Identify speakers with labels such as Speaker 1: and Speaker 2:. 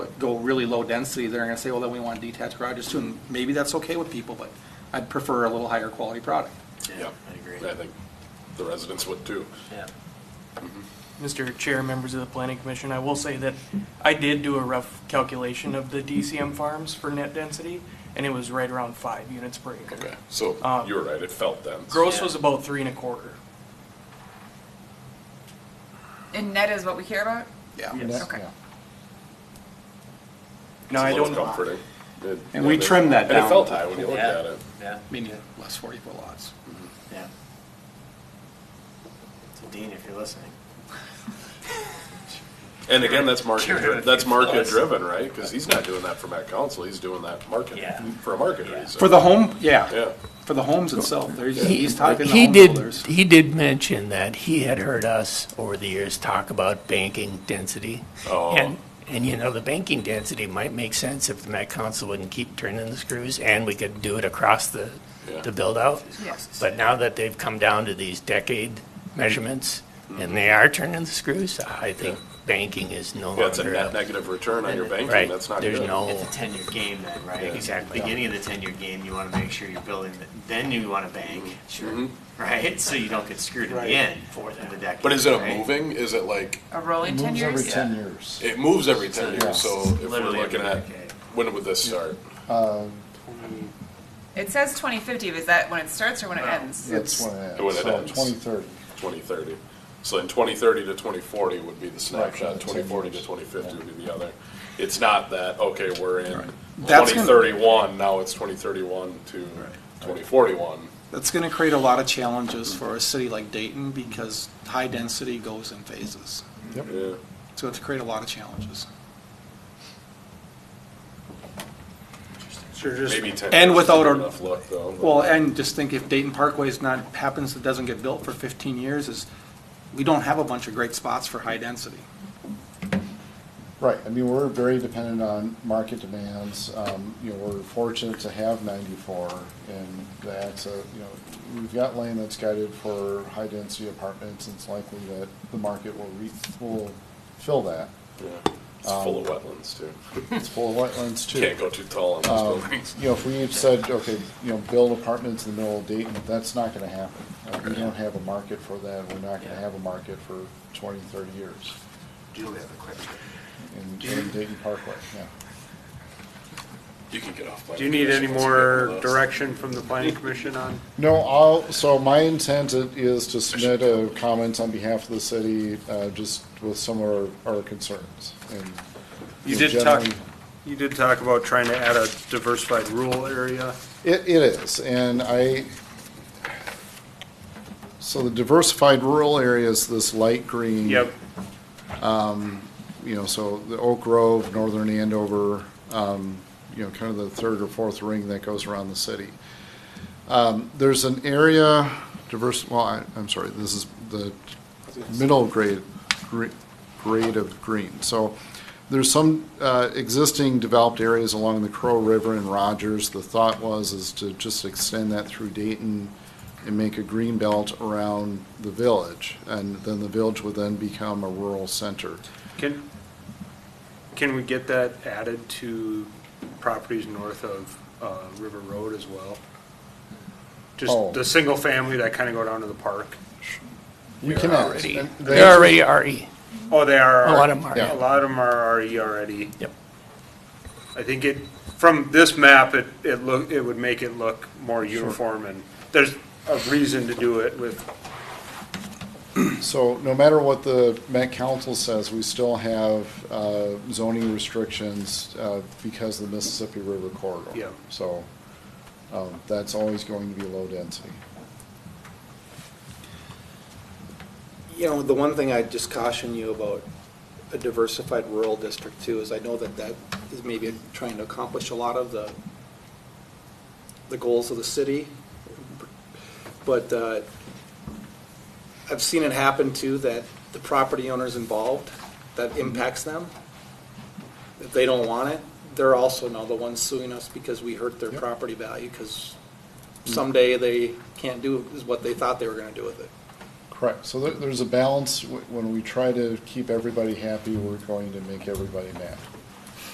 Speaker 1: really low density, they're gonna say, well, then we want detached garages too, and maybe that's okay with people, but I'd prefer a little higher quality product.
Speaker 2: Yeah,
Speaker 3: I agree.
Speaker 2: I think the residents would too.
Speaker 3: Yeah.
Speaker 4: Mr. Chair, members of the planning commission, I will say that I did do a rough calculation of the DCM farms for net density, and it was right around five units per
Speaker 2: Okay,
Speaker 4: acre.
Speaker 2: so
Speaker 3: Uh,
Speaker 4: Um,
Speaker 2: you were right, it felt dense.
Speaker 4: Gross
Speaker 3: Yeah.
Speaker 4: was about three and a quarter.
Speaker 5: And net is what we care about?
Speaker 1: Yeah.
Speaker 4: Yes.
Speaker 5: Okay.
Speaker 4: Now, I
Speaker 2: It's a little
Speaker 4: don't,
Speaker 2: Comforting. It-
Speaker 1: And we
Speaker 2: yeah,
Speaker 1: trimmed that
Speaker 2: And
Speaker 1: down.
Speaker 2: it felt high when you looked
Speaker 3: Yeah.
Speaker 2: at it.
Speaker 3: Yeah,
Speaker 1: Meaning less forty foot lots.
Speaker 3: yeah. So Dean, if you're listening.
Speaker 2: And again, that's
Speaker 3: Get rid
Speaker 2: market,
Speaker 3: of
Speaker 2: that's
Speaker 3: it.
Speaker 2: market driven, right? Because he's not doing that for Met Council, he's doing that market,
Speaker 3: Yeah.
Speaker 2: for a market
Speaker 3: Yeah.
Speaker 2: reason.
Speaker 1: For the home, yeah,
Speaker 2: Yeah,
Speaker 1: for the homes itself, there's,
Speaker 6: He- uh,
Speaker 1: he's talking to
Speaker 6: He
Speaker 1: home
Speaker 6: did,
Speaker 1: builders.
Speaker 6: he did mention that he had heard us over the years talk about banking density.
Speaker 2: Oh.
Speaker 6: And, and you know, the banking density might make sense if the Met Council wouldn't keep turning the screws and we could do it across the,
Speaker 2: Yeah.
Speaker 6: the build-out.
Speaker 5: Yes.
Speaker 6: But now that they've come down to these decade measurements and they are turning the screws, I think banking is no
Speaker 2: yeah, it's a
Speaker 6: longer.
Speaker 2: net
Speaker 6: a-
Speaker 2: negative return on your banking,
Speaker 6: Right,
Speaker 2: that's not good.
Speaker 6: there's
Speaker 3: It's
Speaker 6: no,
Speaker 3: a ten-year game then, right?
Speaker 2: Oh. Yeah.
Speaker 6: Exactly.
Speaker 3: Beginning of the ten-year game, you wanna make sure you're building, the- then you wanna bank, sure, right? So you don't get screwed in the
Speaker 1: Right.
Speaker 3: end, fourth of the decade.
Speaker 2: Mm-hmm. But is it a
Speaker 3: right?
Speaker 2: moving, is it like,
Speaker 5: A rolling
Speaker 7: It
Speaker 5: ten
Speaker 7: moves every
Speaker 5: years?
Speaker 7: ten years.
Speaker 2: it moves every ten years, so if we're
Speaker 3: Literally
Speaker 2: looking
Speaker 3: every
Speaker 2: at,
Speaker 3: decade.
Speaker 2: when would this start?
Speaker 7: Uh,
Speaker 5: It says twenty fifty, is that when it starts or when it ends?
Speaker 7: That's when it
Speaker 2: When
Speaker 7: ends,
Speaker 2: it
Speaker 7: so
Speaker 2: ends.
Speaker 7: twenty thirty.
Speaker 2: 2030. So in 2030 to 2040 would be the
Speaker 7: Right,
Speaker 2: snapshot,
Speaker 7: the
Speaker 2: 2040 to
Speaker 7: ten years.
Speaker 2: 2050 would be the other. It's not that, okay, we're in
Speaker 1: That's gonna-
Speaker 2: 2031, now it's 2031 to 2041.
Speaker 1: That's gonna create a lot of challenges for a city like Dayton because high density goes in phases.
Speaker 7: Yep.
Speaker 2: Yeah.
Speaker 1: So it's create a lot of challenges.
Speaker 8: Sure, just,
Speaker 2: Maybe 10.
Speaker 1: And
Speaker 2: years
Speaker 1: without
Speaker 2: is
Speaker 1: a-
Speaker 2: Enough luck, though. but-
Speaker 1: Well, and just think if Dayton Parkway is not, happens, it doesn't get built for fifteen years is, we don't have a bunch of great spots for high density.
Speaker 7: Right, I mean, we're very dependent on market demands, um, you know, we're fortunate to have ninety-four, and that's a, you know, we've got land that's guided for high-density apartments, and it's likely that the market will re, will fill that.
Speaker 2: Yeah. It's full of wetlands, too.
Speaker 7: It's full of wetlands too.
Speaker 2: Can't go too tall on
Speaker 7: Um,
Speaker 2: those buildings.
Speaker 7: You know, if we had said, okay, you know, build apartments in the middle of Dayton, that's not gonna happen. Uh, We don't have a market for that, we're not gonna have a market for twenty, thirty years
Speaker 3: Julie, I have a question.
Speaker 7: in in Dayton Parkway, yeah.
Speaker 2: You can get off.
Speaker 8: do you need any more direction from the planning commission on?
Speaker 7: No, I'll, so my intent i- is to submit a comment on behalf of the city, uh, just with some of our, our concerns. And
Speaker 8: You
Speaker 7: know,
Speaker 8: did talk,
Speaker 7: generally-
Speaker 8: you did talk about trying to add a diversified rural area.
Speaker 7: It, it is, and I, so the diversified rural area is this light green.
Speaker 8: Yep,
Speaker 7: you know, so the Oak Grove, northern Andover, um, you know, kind of the third or fourth ring that goes around the city. Um, there's an area diverse, well, I, I'm sorry, this is the middle grade, gre- grade of green. So there's some, uh, existing developed areas along the Crow River and Rogers. The thought was is to just extend that through Dayton and make a green belt around the village. And then the village would then become a rural center.
Speaker 8: can, can we get that added to properties north of, uh, River Road as well?
Speaker 7: Oh.
Speaker 8: Just the single family that kind of go down to the park.
Speaker 7: We
Speaker 6: they're
Speaker 7: can ask.
Speaker 6: already,
Speaker 7: And they
Speaker 6: they're already E. RE.
Speaker 8: Oh, they are.
Speaker 6: A lot of 'em are.
Speaker 8: A lot of them are RE already.
Speaker 6: Yep.
Speaker 8: I think it, from this map, it, it look, it would make it look more uniform and there's a reason to do it with,
Speaker 7: So no matter what the Met Council says, we still have uh, zoning restrictions uh, because of the Mississippi River corridor.
Speaker 8: Yeah.
Speaker 7: So um, that's always going to be low density.
Speaker 1: You know, the one thing I just caution you about a diversified rural district too is I know that that is maybe trying to accomplish a lot of the, the goals of the city. But uh, I've seen it happen too, that the property owners involved, that impacts them. If they don't want it, they're also now the ones suing us because we hurt their
Speaker 7: Yep.
Speaker 1: property value because someday they can't do is what they thought they were gonna do with it.
Speaker 7: Correct. So there- there's a balance. Wh- When we try to keep everybody happy, we're going to make everybody mad.